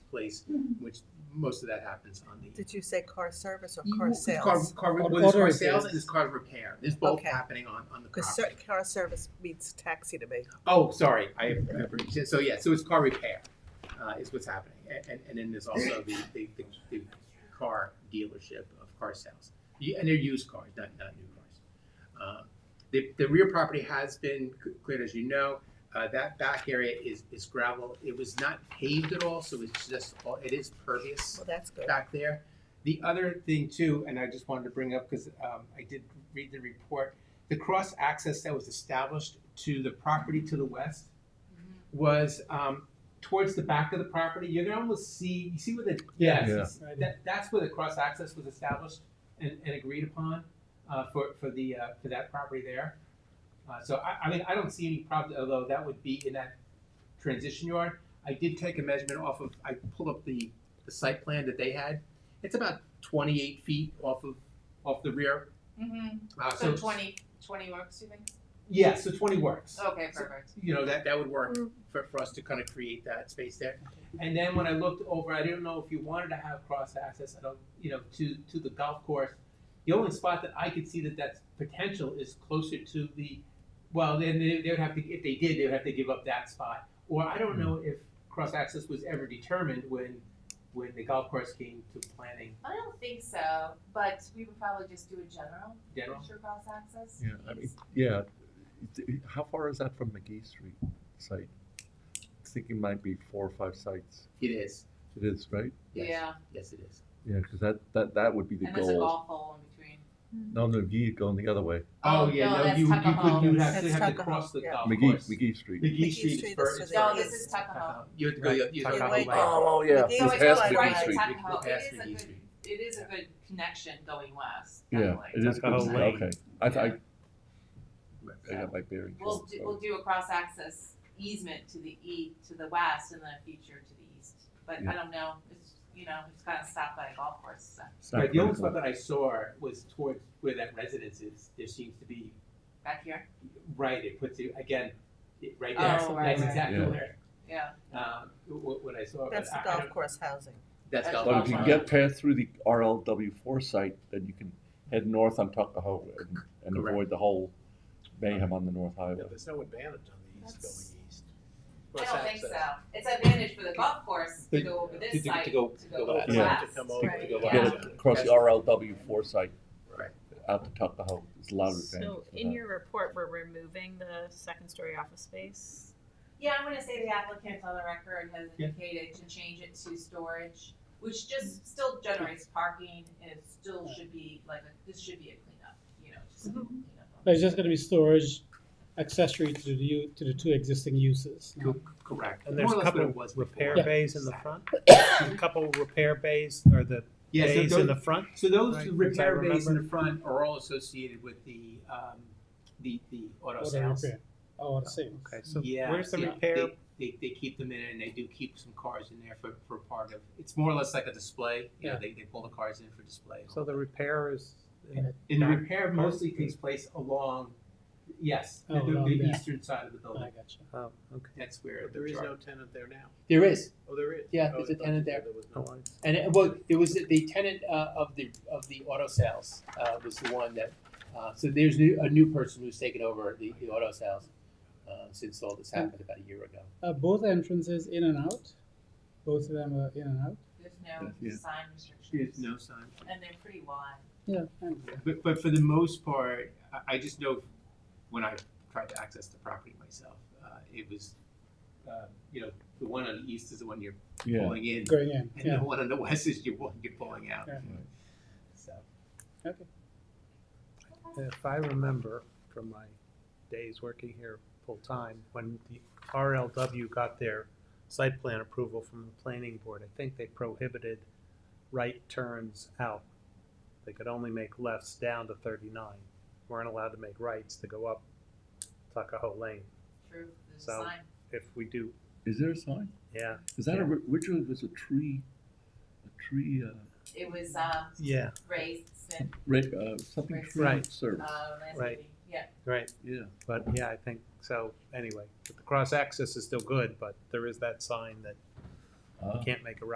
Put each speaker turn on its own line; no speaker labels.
place, which most of that happens on the.
Did you say car service or
You-
car
Car,
sales?
car, well,
Auto
there's car
repairs.
sales and there's car repair. There's both
Okay.
happening on, on the
Because
property.
car service means taxi to me.
Oh, sorry, I, I- so yeah, so it's car repair, uh, is what's happening. And, and, and then there's also the, the, the, the car dealership of car sales. You- And they're used cars, not, not new cars. Um, The, the rear property has been c- cleared, as you know. Uh, that back area is, is gravel. It was not paved at all, so it's just, all it is pervious
Well, that's good.
back there. The other thing too, and I just wanted to bring up because um, I did read the report, the cross access that was established to the property to the west was um, towards the back of the property. You're gonna almost see, you see where the
Yeah.
yes, that, that's where the cross access was established and, and agreed upon uh, for for the uh, for that property there. Uh, so I, I mean, I don't see any problem, although that would be in that transition yard. I did take a measurement off of, I pulled up the the site plan that they had, it's about twenty-eight feet off of, off the rear.
Mm-hmm.
Uh,
So 20, 20 works, you think?
Yeah, so twenty works.
Okay,
So-
perfect.
You know, that, that would work for, for us to kind of create that space there. And then when I looked over, I didn't know if you wanted to have cross access, I don't, you know, to, to the golf course. The only spot that I could see that that's potential is closer to the, well, then they, they would have to, if they did, they would have to give up that spot. Or I don't know if cross access was ever determined when, when the golf course came to planning
I don't think so, but we would probably just do a general,
general.
sure cross access.
Yeah, I mean, yeah, It- how far is that from McGee Street site? I think it might be four or five sites.
It is.
It is, right?
Yes.
Yeah,
Yes, it is.
Yeah, because that, that, that would be the
and there's a
goal.
golf hole in between.
No, no, McGee going the other way.
Oh, no, that's Tuckahoe.
would have
That's
to have to
Tuckahoe,
cross the
yeah.
golf
McGee,
course.
McGee Street.
McGee
Street
Street is
first-
to the
No,
Right.
this is Tuckahoe.
You have to go, you have to
Right.
go
Tuckahoe.
right.
oh,
yeah. McGee
So
It's
it's
past
like
McGee
right at
Street.
Tuckahoe.
It's
It
past
is a
McGee
good,
Street.
it is a good connection going west,
Yeah,
definitely.
it is, good.
Tuckahoe Lane.
okay. I, I, I
So
got my bearings.
We'll, do- we'll do a cross access easement to the e, to the west and then a future to the east. But I
Yeah.
don't know, it's, you know, it's kind of stopped by a golf course, so
Yeah, the only spot that I saw was towards where that residence is. There seems to be,
back here,
right, it puts you, again, it- right
Oh,
there.
right,
That's
right.
exactly
Yeah.
where,
yeah.
um, what, what I saw. but
That's the
I- I
golf
don't-
course housing.
That's
That's
golf.
But if you
course.
get past through the RLW four site, then you can head north on Tuckahoe and, and
Correct.
avoid the whole mayhem on the North
Yeah,
Highway.
there's no advantage on the east
That's-
going east.
I
Cross
don't think so.
access.
It's advantage for the golf course to
But-
go over
to-
this
to
side, to
go-
go
go
west.
west,
to come over,
Right,
to go
yeah.
west.
Get across the RLW four site.
Right.
Out to Tuckahoe, it's a lot of advantage
So
for
in
that.
your report, we're removing the second story office space.
Yeah, I'm gonna say the applicant on the record has
Yeah.
indicated to change it to storage, which just still generates parking and it still should be like, a- this should be a cleanup, you know, just a little cleanup.
There's just gonna be storage accessory to the, u- to the two existing uses.
Co- Correct.
And there's
More or
a
less
couple
what it was
of repair
before.
bays in the front, a couple repair bays or the
Yeah, so
bays
those-
in the front.
So those
Right,
repair
if I
bays in the front are all associated with the, um, the, the auto
Auto
sales.
repair. Oh, I see.
Okay, so
Yeah,
where's the
yeah,
repair?
They, they, they keep them in and they do keep some cars in there for, for part of, it's more or less like a display, you know,
Yeah.
they, they pull the cars in for display.
So the repair is in
And the
back
repair
part?
mostly takes place along, yes, the,
Oh, along
the, the
there.
eastern side of the
I
building,
got you.
Oh, okay.
that's where
But
the
there is
char-
no tenant there now.
There is,
Oh, there is?
Yeah,
Oh,
there's
I
a
thought
tenant
you said
there.
was no.
and it, well, there was, the tenant, uh, of the, of the auto sales, uh, was the one that, uh, so there's new, a new person who's taken over the, the auto sales, uh, since all this happened about a year ago.
Uh, both entrances in and out, both of them are in and out.
There's no
Yeah.
sign restrictions.
There's no sign.
And they're pretty wide.
Yeah. and-
But, but for the most part, I, I just know when I tried to access the property myself, uh, it was, uh, you know, the one on the east is the one you're
Yeah.
pulling in,
Going in,
and
yeah.
the one on the west is your one you're pulling out.
Yeah.
So
If I remember from my days working here full-time, when the RLW got their site plan approval from the planning board, I think they prohibited right turns out. They could only make lefts down to thirty-nine, weren't allowed to make rights to go up Tuckahoe Lane.
True, there's a
So-
sign.
If we do,
Is there a sign?
yeah,
Is that a, which one was a tree, a tree, uh,
It was, um,
yeah,
raised and,
re- uh, something
Right.
tree
Right.
service?
uh, last
Right.
meeting. yeah.
right,
Yeah,
but yeah, I think, so, anyway, but the cross access is still good, but there is that sign that
Ah.
you can't make a right.